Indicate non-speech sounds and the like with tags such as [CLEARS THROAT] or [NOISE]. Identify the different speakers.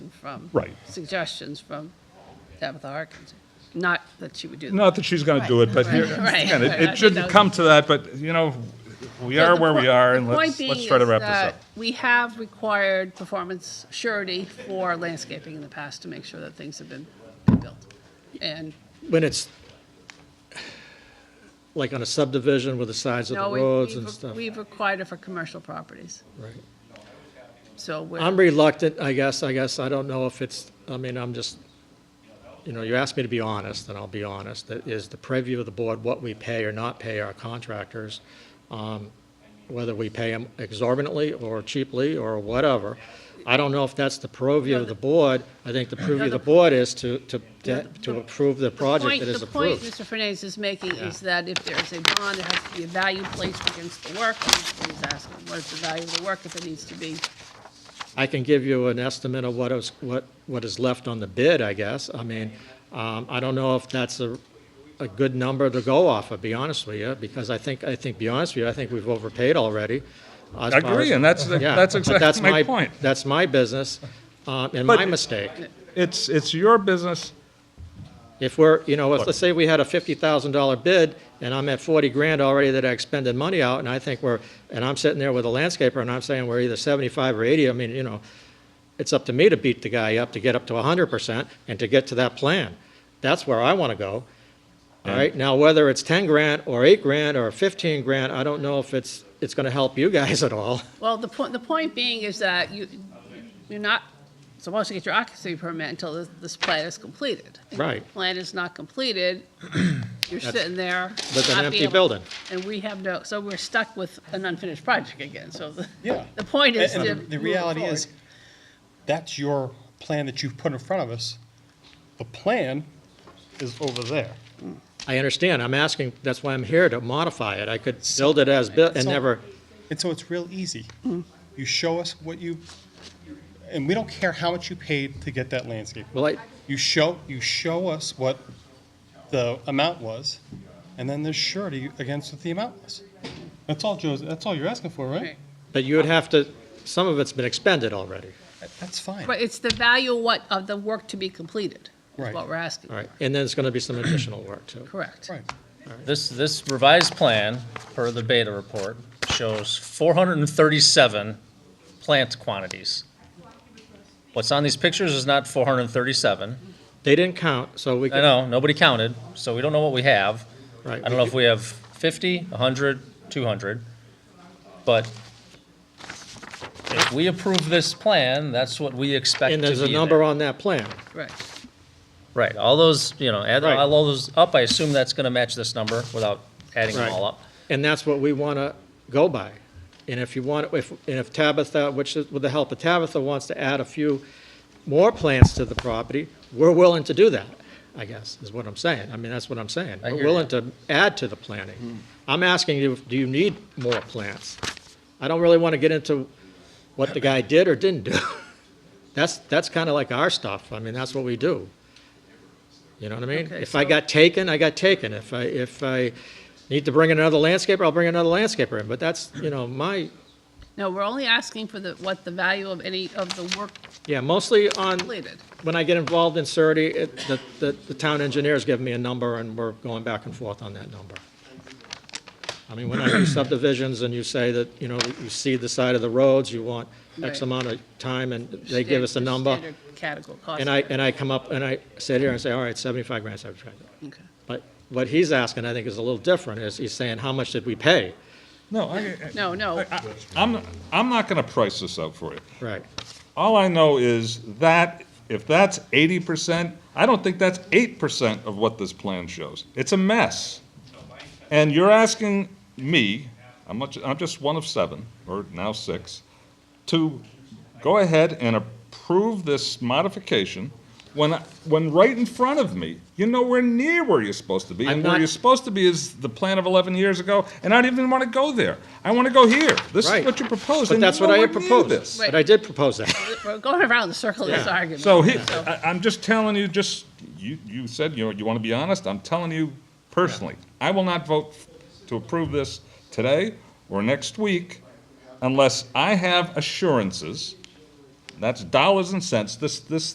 Speaker 1: from.
Speaker 2: Right.
Speaker 1: Suggestions from Tabitha Harkins. Not that she would do that.
Speaker 2: Not that she's going to do it, but here,
Speaker 1: Right.
Speaker 2: again, it-
Speaker 1: Right.
Speaker 2: it shouldn't come to that, but, you know, we are where we are, and
Speaker 1: The point
Speaker 2: let's, let's
Speaker 1: being
Speaker 2: try to
Speaker 1: is
Speaker 2: wrap this
Speaker 1: that
Speaker 2: up.
Speaker 1: We have required performance surety for landscaping in the past to make sure that things have been built. And
Speaker 3: When it's, like on a subdivision with the sides of
Speaker 1: no,
Speaker 3: the
Speaker 1: we-
Speaker 3: roads and
Speaker 1: we've-
Speaker 3: stuff.
Speaker 1: we've required it for commercial properties.
Speaker 3: Right.
Speaker 1: So we're.
Speaker 3: I'm reluctant, I guess, I guess, I don't know if it's, I mean, I'm just, you know, you asked me to be honest, and I'll be honest, that is the preview of the board, what we pay or not pay our contractors, um, whether we pay them exorbitantly or cheaply or whatever. I don't know if that's the purview of the board. I think the purview of the board is to, to, to approve the project
Speaker 1: point-
Speaker 3: that is
Speaker 1: The point
Speaker 3: approved.
Speaker 1: Mr. Fernandez is making is that if there's a bond, it has to be a value placed against the work. And He's asking, what is the value of the work if it needs to be?
Speaker 3: I can give you an estimate of what is, what, what is left on the bid, I guess. I mean, um, I don't know if that's a, a good number to go off of, be honest with you, because I think, I think, be honest with you, I think we've overpaid already. as far
Speaker 2: Agree,
Speaker 3: as-
Speaker 2: and that's the-
Speaker 3: Yeah,
Speaker 2: that's
Speaker 3: but
Speaker 2: exactly
Speaker 3: that's
Speaker 2: my point.
Speaker 3: That's my business, um, and
Speaker 2: But-
Speaker 3: my mistake.
Speaker 2: It's, it's your business,
Speaker 3: If we're, you know, if,
Speaker 2: Look.
Speaker 3: let's say we had a fifty thousand dollar bid, and I'm at forty grand already that I expended money out, and I think we're, and I'm sitting there with a landscaper, and I'm saying we're either seventy-five or eighty, I mean, you know, it's up to me to beat the guy up, to get up to hundred percent, and to get to that plan. That's where I wanna go. All right, now whether it's ten grand, or eight grand, or fifteen grand, I don't know if it's, it's gonna help you guys [LAUGHS] at all.
Speaker 1: Well, the point, the point being is that you, you're not supposed to get your occupancy permit until this, this plan is completed. If the
Speaker 3: Right.
Speaker 1: Plan is not
Speaker 3: [CLEARS THROAT]
Speaker 1: completed, you're sitting there.
Speaker 3: With an
Speaker 1: not
Speaker 3: empty
Speaker 1: be able-
Speaker 3: building.
Speaker 1: And we have no, so we're stuck with an unfinished project again, so the.
Speaker 4: Yeah.
Speaker 1: The point is
Speaker 4: And-
Speaker 1: to.
Speaker 4: and The
Speaker 1: move it
Speaker 4: reality is,
Speaker 1: forward.
Speaker 4: that's your plan that you've put in front of us. The plan is over there.
Speaker 3: I understand, I'm asking, that's why I'm here, to modify it, I could build it as, built and
Speaker 4: So-
Speaker 3: never,
Speaker 4: And so it's real easy. You show us what you, and we don't care how much you paid to get that landscape.
Speaker 3: well, I,
Speaker 4: You show, you show us what the amount was, and then there's surety against what the amount was. That's all Joe's, that's all you're asking for,
Speaker 1: Right.
Speaker 4: right?
Speaker 3: But you would have to, some of it's been expended already.
Speaker 4: That's fine.
Speaker 1: But it's the value what, of the work to be completed, is
Speaker 4: Right.
Speaker 1: what we're asking.
Speaker 3: All right, and then it's going to be some additional work, too.
Speaker 1: Correct.
Speaker 4: Right.
Speaker 5: This, this revised plan, per the beta report, shows 437 plant quantities. What's on these pictures is not 437.
Speaker 3: They didn't count, so we,
Speaker 5: I
Speaker 3: could-
Speaker 5: know, nobody counted, so we don't know what we have. I
Speaker 3: right.
Speaker 5: don't know if we have 50, 100, 200, but if we approve this plan, that's what we expect to
Speaker 3: And
Speaker 5: be
Speaker 3: there's a
Speaker 5: there.
Speaker 3: number on that plan.
Speaker 1: Correct.
Speaker 5: Right, all those, you know, add
Speaker 3: Right.
Speaker 5: all those up, I assume that's going to match this number without adding them
Speaker 3: Right.
Speaker 5: all up.
Speaker 3: And that's what we want to go by. And if you want, if, and if Tabitha, which is, with the help of Tabitha, wants to add a few more plants to the property, we're willing to do that, I guess, is what I'm saying. I mean, that's what I'm saying.
Speaker 5: I
Speaker 3: We're
Speaker 5: hear Hmm.
Speaker 3: willing to add to the planting. I'm asking you, do you need more plants? I don't really want to get into what the guy did or didn't do. [LAUGHS] That's, that's kind of like our stuff. I mean, that's what we do. You know what I mean?
Speaker 1: Okay,
Speaker 3: If I got taken, I got taken. If I, if I need to bring in another landscaper, I'll bring another landscaper in. But that's, you know, my,
Speaker 1: No, we're only asking for the, what the value of any of the work
Speaker 3: yeah, mostly on,
Speaker 1: completed.
Speaker 3: when I get involved in surety, it, the, the, the town engineer's giving me a number and we're going back and forth on that number. I mean, when I do subdivisions and you say that, you know, you see the side of the roads, you want
Speaker 1: Right.
Speaker 3: X amount of time and they give us a
Speaker 1: Standard-
Speaker 3: number.
Speaker 1: standard Category cost.
Speaker 3: And I, and I come up and I sit here and say, all right, seventy-five grand, seventy-five grand.
Speaker 1: Okay.
Speaker 3: But what he's asking, I think, is a little different, is he's saying, how much did we pay?
Speaker 2: No, I,
Speaker 1: No, no,
Speaker 2: I, I'm, I'm not going to price this out for you.
Speaker 3: Right,
Speaker 2: All I know is that if that's eighty percent, I don't think that's eight percent of what this plan shows. It's a mess. And you're asking me, I'm, much, I'm just one of seven, or now six, to go ahead and approve this modification when, I- when right in front of me, you're nowhere near where you're supposed to be.
Speaker 3: I'm
Speaker 2: And where
Speaker 3: not-
Speaker 2: you're supposed to be is the plan of eleven years ago, and I don't even want to go there. I want to go here. This is
Speaker 3: right.
Speaker 2: what you proposed,
Speaker 3: But
Speaker 2: and you're
Speaker 3: that's what I
Speaker 2: nowhere
Speaker 3: had
Speaker 2: near
Speaker 3: proposed.
Speaker 2: this.
Speaker 3: But I did propose that.
Speaker 1: we're going around the circle of this
Speaker 3: Yeah.
Speaker 1: argument.
Speaker 2: So he, I, I'm just telling you, just, you, you said, you know, you want to be honest, I'm telling you personally, I will not vote to approve this today or next week unless I have assurances, that's dollars and cents, this, this